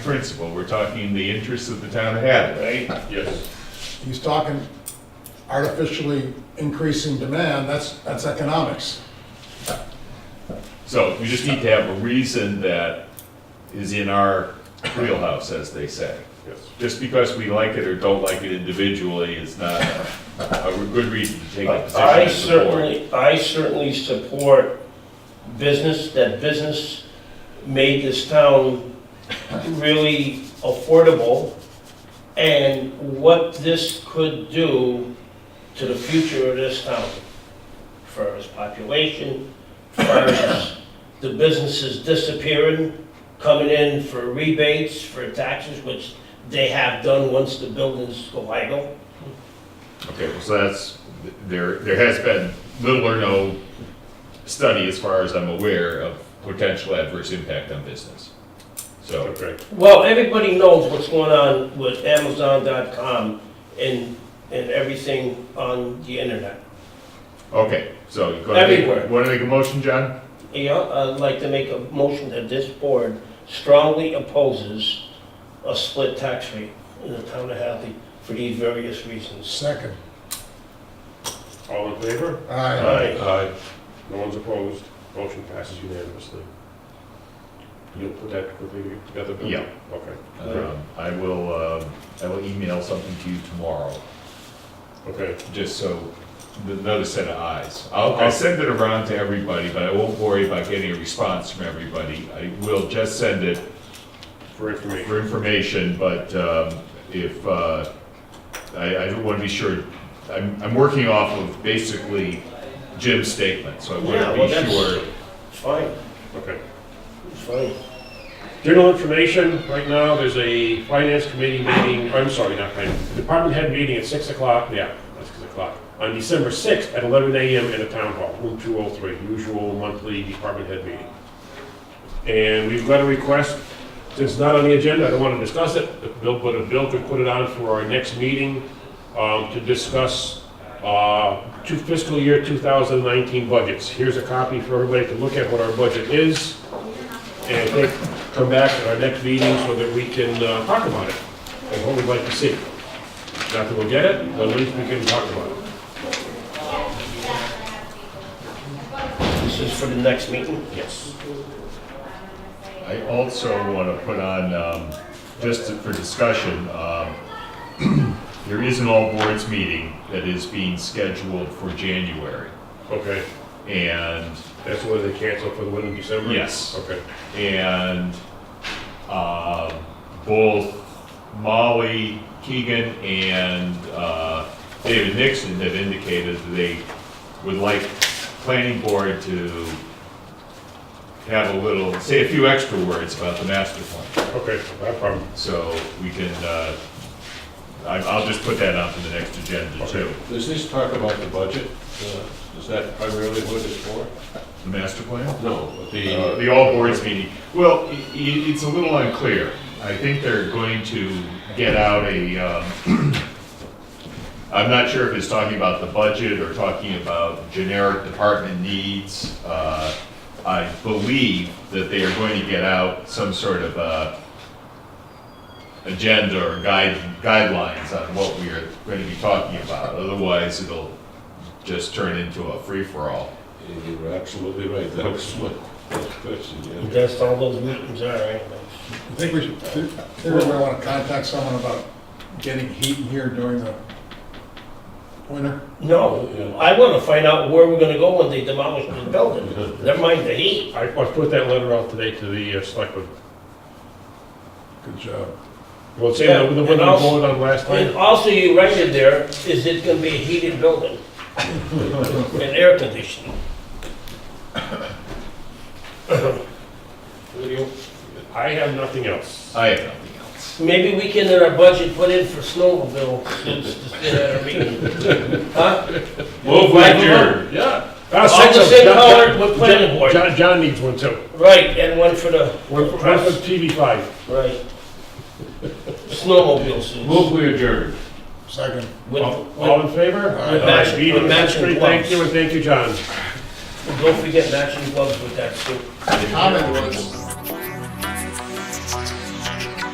principle, we're talking the interests of the town of Hadley, right? Yes. He's talking artificially increasing demand, that's, that's economics. So we just need to have a reason that is in our wheelhouse, as they say. Yes. Just because we like it or don't like it individually is not a a good reason to take a position I as a board. certainly, I certainly support business, that business made this town really affordable. And what this could do to the future of this town, for its population, for its- the businesses disappearing, coming in for rebates, for taxes, which they have done once the buildings go idle. Okay, well, so that's, there, there has been little or no study, as far as I'm aware, of potential adverse impact on business. So, Okay. Well, everybody knows what's going on with Amazon.com and, and everything on the internet. okay, so you're gonna make, Everywhere. wanna make a motion, John? Yeah, I'd uh, like to make a motion that this board strongly opposes a split tax rate in the town of Hadley for these various reasons. Second, All in favor? aye. Aye. No one's opposed. Motion passes unanimously. You'll put that quickly together, Bill? Yeah. Okay. Um, I will, um, I will email something to you tomorrow, Okay. just so, the- another set of eyes. I'll, I'll send it around to everybody, but I won't worry about getting a response from everybody. I will just send it For information. for information, but um, if, uh, I, I want to be sure, I'm, I'm working off of basically Jim's statement, so I Yeah, want to well, be that's- sure. It's fine, Okay. it's fine. General information, right now, there's a finance committee meeting, I'm sorry, not finance, department head meeting at 6 o'clock, yeah, that's 6 o'clock, on December 6th at 11 a.m. in the town hall, room 203, usual monthly department head meeting. And we've got a request, since it's not on the agenda, I don't want to discuss it, if Bill, but if Bill could put it on for our next meeting um, to discuss uh, two fiscal year 2019 budgets. Here's a copy for everybody to look at what our budget is and I think come back at our next meeting so that we can uh, talk about it and what we'd like to see. Not that we'll get it, but at least we can talk about it. This is for the next meeting? Yes. I also want to put on, um, just for discussion, um, there is an all boards meeting that is being scheduled for January. Okay, And that's why they canceled for the one in December? Yes. Okay, and uh, both Molly Keegan and uh, David Nixon have indicated that they would like planning board to have a little, say a few extra words about the master plan. okay, no problem. So we can, uh, I- I'll just put that on for the next agenda too. Does this talk about the budget? Uh, Is that primarily what it's for? The master plan? No, Uh, the, The all boards meeting. Well, i- i- it's a little unclear. I think they're going to get out a, um, I'm not sure if it's talking about the budget or talking about generic department needs. Uh, I believe that they are going to get out some sort of uh, agenda or guide, guidelines on what we are going to be talking about. Otherwise, it'll just turn into a free-for-all. you were absolutely right, that was my first question, yeah. That's all those meetings are, right? I think we should, theoretically, we want to contact someone about getting heat in here during the winter. No, I want to find out where we're gonna go when they demolish the building. Never mind the heat. I I put that letter out today to the uh, selectmen. Good job. Well, same with the one we And also- voted on last And time. also you rented there, is it gonna be a heated building? And air conditioning? I have nothing else. I have nothing else. Maybe we can in our budget put in for snowmobile since this is our meeting. Huh? Move Right, Yeah. All the same color with planning board. John, John needs one too. Right, and one for the, One for one for TV5. right. Snowmobile suits. Move we adjourn. Second. With, All with, all in favor? with Oh. match- Meeting with matching history. Thank you, and gloves. thank you, John. Don't forget matching gloves with that suit. Comment was,